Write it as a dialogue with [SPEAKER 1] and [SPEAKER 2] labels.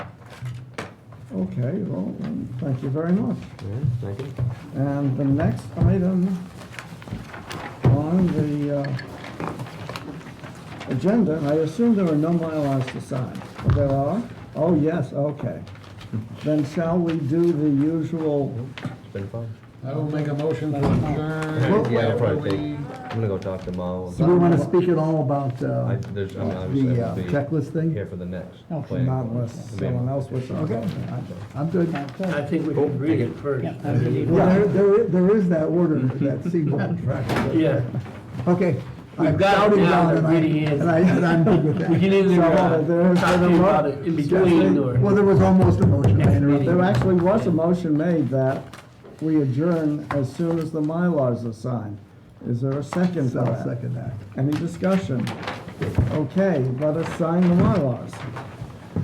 [SPEAKER 1] Okay, well, then, thank you very much.
[SPEAKER 2] Yeah, thank you.
[SPEAKER 1] And the next item on the uh, agenda, and I assume there are no MyLars to sign. There are? Oh, yes, okay. Then shall we do the usual,
[SPEAKER 2] It's been fun.
[SPEAKER 3] I will make a motion to adjourn.
[SPEAKER 1] Well,
[SPEAKER 2] Yeah, I'll probably
[SPEAKER 3] after
[SPEAKER 2] take, I'm gonna go talk to Mo.
[SPEAKER 4] Do we want to speak at all about
[SPEAKER 2] I,
[SPEAKER 4] uh,
[SPEAKER 2] there's, I'm obviously
[SPEAKER 4] the uh,
[SPEAKER 2] gonna be
[SPEAKER 4] checklist thing?
[SPEAKER 2] here for the next.
[SPEAKER 4] No,
[SPEAKER 2] planning
[SPEAKER 1] Oh, not
[SPEAKER 2] board.
[SPEAKER 1] unless someone else wishes.
[SPEAKER 4] Okay. I'm good. Well,
[SPEAKER 5] Oh, I think we should read it first. I mean,
[SPEAKER 4] there, there i- there is that order, that Seaboard track.
[SPEAKER 5] Yeah,
[SPEAKER 4] Okay.
[SPEAKER 5] We've
[SPEAKER 4] I've
[SPEAKER 5] got it
[SPEAKER 4] shouted
[SPEAKER 5] down,
[SPEAKER 4] down
[SPEAKER 5] it
[SPEAKER 4] and I-
[SPEAKER 5] really is.
[SPEAKER 4] And I, and I'm good with
[SPEAKER 5] we
[SPEAKER 4] that.
[SPEAKER 5] can either
[SPEAKER 1] So,
[SPEAKER 5] uh,
[SPEAKER 1] there's
[SPEAKER 5] talk to
[SPEAKER 1] been
[SPEAKER 5] you
[SPEAKER 1] a
[SPEAKER 5] about
[SPEAKER 1] lot-
[SPEAKER 5] it in between
[SPEAKER 4] Well,
[SPEAKER 5] or.
[SPEAKER 4] there was almost a motion. I interrupted.
[SPEAKER 1] There actually was a motion made that we adjourn as soon as the MyLars are signed. Is there a second to
[SPEAKER 4] So I'll
[SPEAKER 1] that?
[SPEAKER 4] second that.
[SPEAKER 1] Any discussion? Okay, let us sign the Mylars.